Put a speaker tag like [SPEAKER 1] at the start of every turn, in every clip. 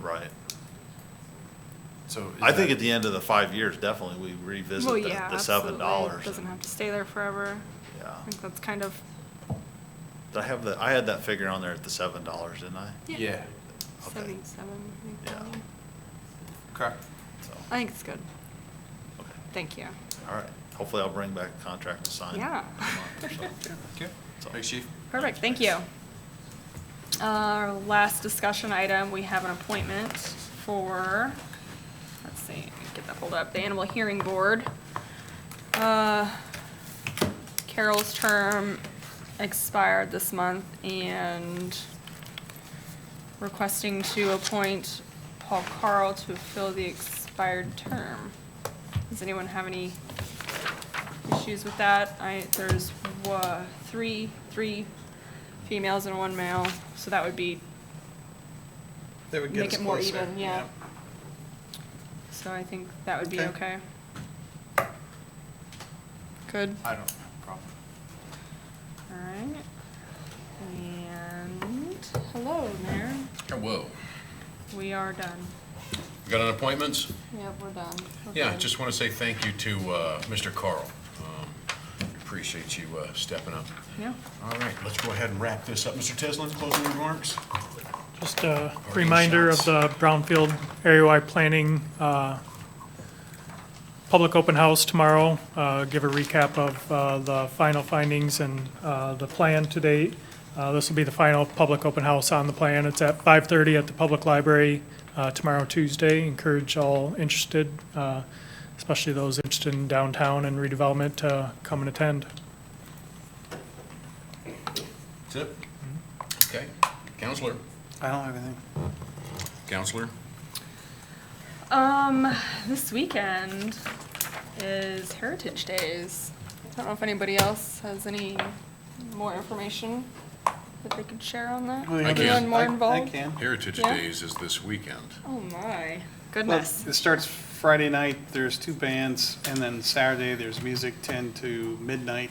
[SPEAKER 1] Right.
[SPEAKER 2] So. is
[SPEAKER 1] I think
[SPEAKER 2] that-
[SPEAKER 1] at the end of the five years, definitely we revisit
[SPEAKER 3] Well,
[SPEAKER 1] the,
[SPEAKER 3] yeah,
[SPEAKER 1] the
[SPEAKER 3] absolutely.
[SPEAKER 1] seven dollars.
[SPEAKER 3] Doesn't have to stay there forever.
[SPEAKER 1] Yeah.
[SPEAKER 3] I think that's kind of,
[SPEAKER 1] Did I have the, I had that figure on there at the seven dollars, didn't I?
[SPEAKER 3] yeah.
[SPEAKER 2] Yeah,
[SPEAKER 1] Okay.
[SPEAKER 3] seventy-seven, I
[SPEAKER 1] Yeah.
[SPEAKER 3] think.
[SPEAKER 2] okay.
[SPEAKER 1] So,
[SPEAKER 3] I think it's good.
[SPEAKER 1] okay,
[SPEAKER 3] Thank you.
[SPEAKER 1] all right. Hopefully I'll bring back a contract to sign.
[SPEAKER 3] Yeah.
[SPEAKER 1] in a month or so.
[SPEAKER 2] Okay.
[SPEAKER 1] So-
[SPEAKER 2] Thanks, chief.
[SPEAKER 3] Perfect, thank you. Our last discussion item, we have an appointment for, let's see, get that pulled up, the Animal Hearing Board. Uh, Carol's term expired this month and requesting to appoint Paul Carl to fill the expired term. Does anyone have any issues with that. I, there's uh, three, three females and one male, so that would be,
[SPEAKER 4] That would get
[SPEAKER 3] Make
[SPEAKER 4] us
[SPEAKER 3] it more
[SPEAKER 4] closer,
[SPEAKER 3] even, yeah. so I think that would be okay.
[SPEAKER 4] Okay.
[SPEAKER 3] Good,
[SPEAKER 2] I don't have a problem.
[SPEAKER 3] all right. And, hello there,
[SPEAKER 5] Oh, Whoa,
[SPEAKER 3] we are done.
[SPEAKER 5] we got an appointments?
[SPEAKER 3] Yep, we're done.
[SPEAKER 5] Yeah, just want to say thank you to uh, Mr. Carl. Um, Appreciate you uh, stepping up.
[SPEAKER 3] Yeah,
[SPEAKER 5] All right, let's go ahead and wrap this up. Mr. Tisland, closing remarks?
[SPEAKER 6] Just a reminder of the Brownfield area-wide planning, uh, public open house tomorrow. Uh, Give a recap of uh, the final findings and uh, the plan to date. Uh, This will be the final public open house on the plan. It's at 5:30 at the Public Library uh, tomorrow, Tuesday. Encourage all interested, uh, especially those interested in downtown and redevelopment, to come and attend.
[SPEAKER 5] That's it? Okay. Counselor?
[SPEAKER 4] I don't have anything.
[SPEAKER 5] Counselor?
[SPEAKER 3] um, this weekend is Heritage Days. I don't know if anybody else has any more information that they could share on that?
[SPEAKER 4] Well, Oh, yeah,
[SPEAKER 5] I can.
[SPEAKER 3] Anyone more
[SPEAKER 4] I- I
[SPEAKER 3] involved?
[SPEAKER 4] can.
[SPEAKER 5] Heritage
[SPEAKER 3] Yeah.
[SPEAKER 5] Days is this weekend.
[SPEAKER 3] Oh my
[SPEAKER 4] Well,
[SPEAKER 3] goodness.
[SPEAKER 4] it starts Friday night, there's two bands, and then Saturday, there's music ten to midnight.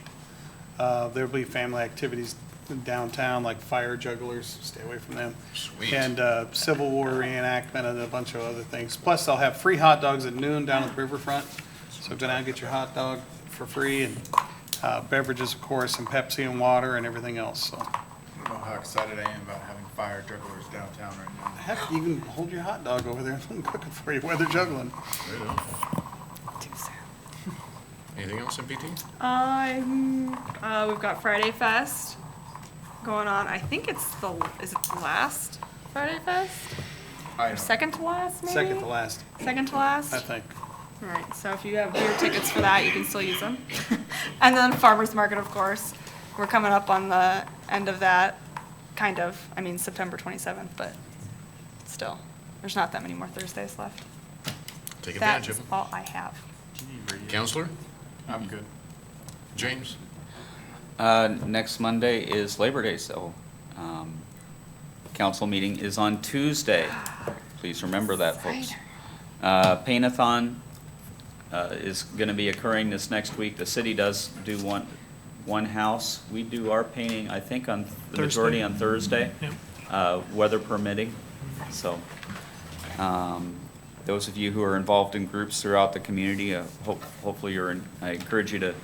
[SPEAKER 4] Uh, there'll be family activities downtown, like fire jugglers, stay away from them.
[SPEAKER 5] Sweet.
[SPEAKER 4] And, uh, Civil War reenactment and a bunch of other things. Plus, they'll have free hot dogs at noon down at the riverfront. So go down and get your hot dog for free and, uh, beverages, of course, and Pepsi and water and everything else, so.
[SPEAKER 2] I don't know how excited I am about having fire jugglers downtown right now.
[SPEAKER 4] Heck, you can hold your hot dog over there and cook it for you while they're juggling.
[SPEAKER 5] There you go. Anything else, MPT?
[SPEAKER 3] Um, uh, we've got Friday Fest going on. I think it's the is it the last Friday Fest?
[SPEAKER 2] I
[SPEAKER 3] Or
[SPEAKER 2] don't-
[SPEAKER 3] second to last, maybe.
[SPEAKER 4] Second to last,
[SPEAKER 3] Second to last.
[SPEAKER 4] I think.
[SPEAKER 3] All right. So if you have beer tickets for that, you can still use them. and then farmers market, of course. We're coming up on the end of that, kind of. I mean September 27th, but still, there's not that many more Thursdays left.
[SPEAKER 5] Take advantage of
[SPEAKER 3] That's
[SPEAKER 5] them.
[SPEAKER 3] all I have.
[SPEAKER 5] Counselor?
[SPEAKER 2] I'm good.
[SPEAKER 5] James?
[SPEAKER 7] Uh, Next Monday is Labor Day, so um, council meeting is on Tuesday. Please remember that, folks. Uh, Paint-a-thon uh, is going to be occurring this next week. The city does do one, one house. We do our painting, I think, on, the majority
[SPEAKER 6] Thursday.
[SPEAKER 7] on Thursday,
[SPEAKER 6] Yep.
[SPEAKER 7] uh, weather permitting. So um, those of you who are involved in groups throughout the community, uh, hope- hopefully you're, in- I encourage you to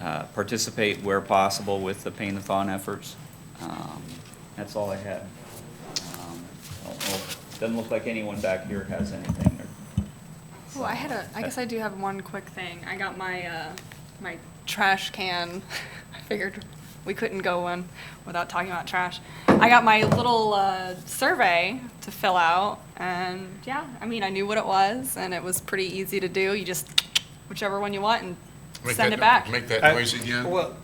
[SPEAKER 7] uh, participate where possible with the paint-a-thon efforts. Um, That's all I had. Um, I don't know- Doesn't look like anyone back here has anything. or-
[SPEAKER 3] Well, I had a, I guess I do have one quick thing. I got my, uh, my trash can. I figured we couldn't go one without talking about trash. I got my little, uh, survey to fill out and yeah, I mean, I knew what it was and it was pretty easy to do. You just whichever one you want and
[SPEAKER 5] Make
[SPEAKER 3] send
[SPEAKER 5] that-
[SPEAKER 3] it back.
[SPEAKER 5] Make that
[SPEAKER 4] I-
[SPEAKER 5] noise again.
[SPEAKER 4] Well,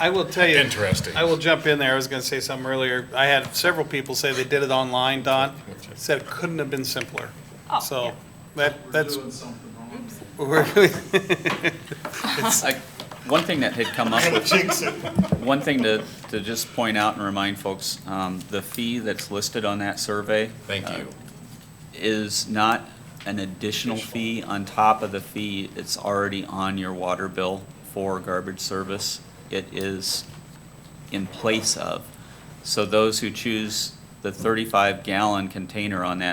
[SPEAKER 4] I will tell you.
[SPEAKER 5] Interesting.
[SPEAKER 4] I will jump in there. I was gonna say something earlier. I had several people say they did it online, Don. Said it couldn't have been simpler.
[SPEAKER 3] Oh, yeah.
[SPEAKER 4] So that, that's. We're-
[SPEAKER 7] I- One thing that had come up with, one thing to, to just point out and remind folks, um, the fee that's listed on that survey.
[SPEAKER 5] Thank
[SPEAKER 7] uh,
[SPEAKER 5] you.
[SPEAKER 7] Is not an additional fee on top of the fee that's already on your water bill for garbage service. It is in place of. So those who choose the thirty-five gallon container on that